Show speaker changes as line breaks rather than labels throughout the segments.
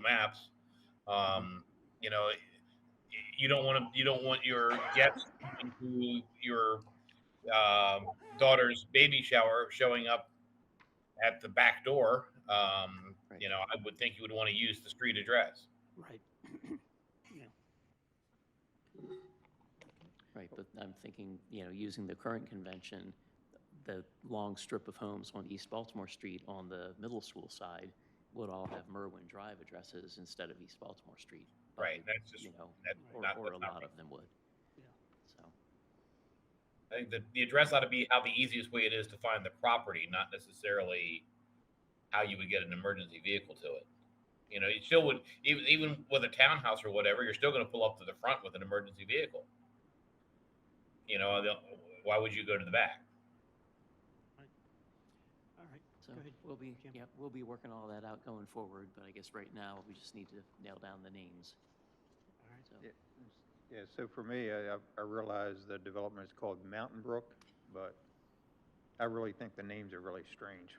Maps. Um, you know, you don't want to you don't want your guests to your um daughter's baby shower showing up at the back door. Um,
Right.
You know, I would think you would want to use the street address.
Right. Yeah.
Right, but I'm thinking, you know, using the current convention, the long strip of homes on East Baltimore Street on the middle school side would all have Merwin Drive addresses instead of East Baltimore Street. by,
Right, that's just-
You know,
That,
Right.
or,
not-
or
that's
a
not
lot
right.
of them would.
Yeah.
So,
I think the, the address ought to be how the easiest way it is to find the property, not necessarily how you would get an emergency vehicle to it. You know, you still would even even with a townhouse or whatever, you're still going to pull up to the front with an emergency vehicle. You know, the- why would you go to the back?
All right.
so
Go ahead,
we'll be,
Jim.
yeah, we'll be working all that out going forward, but I guess right now, we just need to nail down the names,
All right.
so.
Yeah, Yeah, so for me, I, I- I realize the development is called Mountain Brook, but I really think the names are really strange.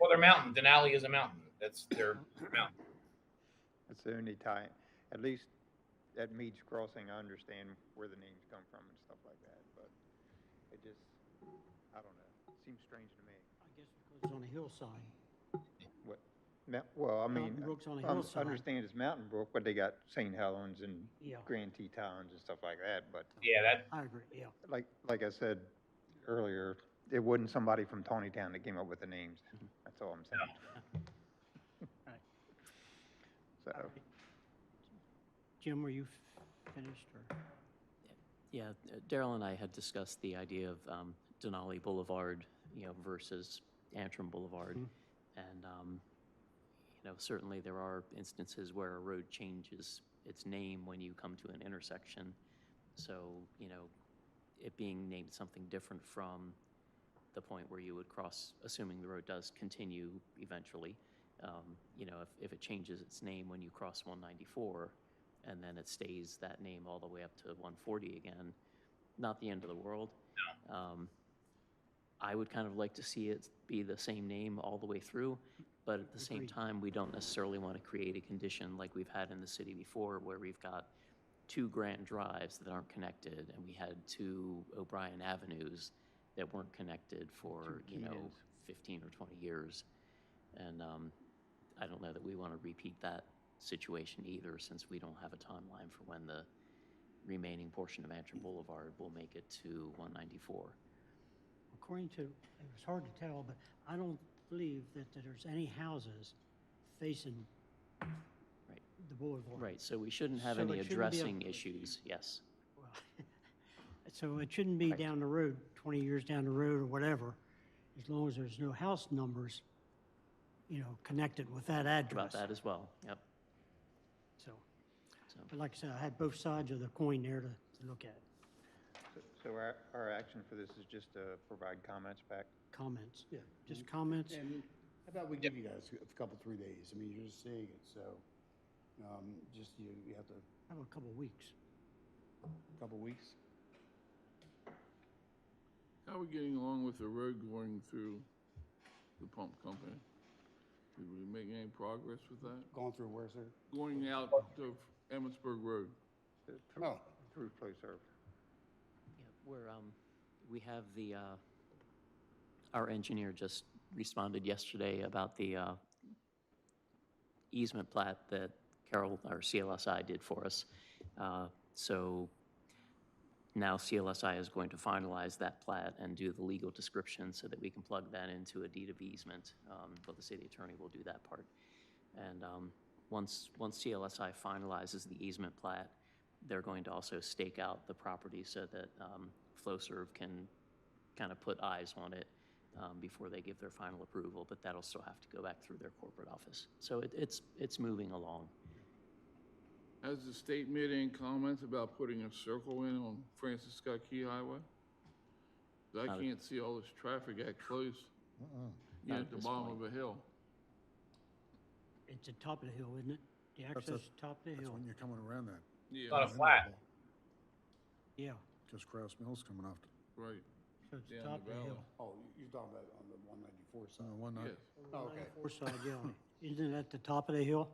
Well, they're mountain. Denali is a mountain. That's their mountain.
That's the only time, at least at Mead's Crossing, I understand where the names come from and stuff like that, but it just, I don't know, it seems strange to me.
I guess because it's on a hillside.
What, Mount, well, I mean,
Mountain Brook's on a
I un-
hillside.
understand it's Mountain Brook, but they got St. Helens and
Yeah.
Grand Tetons and stuff like that, but
Yeah, that
I agree, yeah.
like, like I said earlier, it wasn't somebody from Tony Town that came up with the names. That's all I'm saying.
Right.
So,
Jim, were you finished or?
Yeah, uh, Daryl and I had discussed the idea of um, Denali Boulevard, you know, versus Antrim Boulevard. And, um, you know, certainly there are instances where a road changes its name when you come to an intersection. So, you know, it being named something different from the point where you would cross, assuming the road does continue eventually. um, You know, if, if it changes its name when you cross 194, and then it stays that name all the way up to 140 again, not the end of the world. Um, I would kind of like to see it be the same name all the way through, but at the same
Agreed.
time, we don't necessarily want to create a condition like we've had in the city before, where we've got two Grant Drives that aren't connected, and we had two O'Brien Avenues that weren't connected for, you know, 15 or 20 years. And um, I don't know that we want to repeat that situation either, since we don't have a timeline for when the remaining portion of Antrim Boulevard will make it to 194.
According to, it was hard to tell, but I don't believe that that there's any houses facing
Right.
the boulevard.
Right, so we shouldn't have
So
any
it shouldn't be a-
addressing issues, yes.
Well, So it shouldn't be
Right.
down the road, 20 years down the road or whatever, as long as there's no house numbers, you know, connected with that
About
address.
that as well, yep.
So,
So
but like I said, I had both sides of the coin there to, to look at,
so our, our action for this is just to provide comments back.
comments, yeah, just comments.
And how about we give you guys a couple, three days? I mean, you're just seeing it, so, um, just you, you have to, a
Have a couple weeks.
couple weeks?
How are we getting along with the road going through the pump company? Did we make any progress with that?
Going through where, sir?
Going out of Emmitsburg Road?
through-
No.
Through Flow Serve.
Yeah, We're, um, we have the, uh, our engineer just responded yesterday about the, uh, easement plat that Carol, our CLSI did for us. Uh, so now CLSI is going to finalize that plat and do the legal description so that we can plug that into a deed of easement, um, but the city attorney will do that part. And um, once, once CLSI finalizes the easement plat, they're going to also stake out the property so that um, FlowServe can kind of put eyes on it um, before they give their final approval, but that'll still have to go back through their corporate office. So it- it's, it's moving along.
Has the state made any comments about putting a circle in on Francis Scott Key Highway? 'Cause I can't see all this traffic at close, you know,
Not
at
at
the
this
bottom
point.
of a hill.
It's the top of the hill, isn't it? The access is top of the
That's
hill.
when you're coming around that.
It's not a
Yeah,
flat.
Yeah,
Because Kraus Mill's coming off,
right,
so it's the
down
top
the
of the hill.
valley.
Oh, you- you're talking about on the one ninety-four
uh,
side?
one night.
Yes.
Oh, Okay.
Four side, yeah. Isn't it at the top of the hill?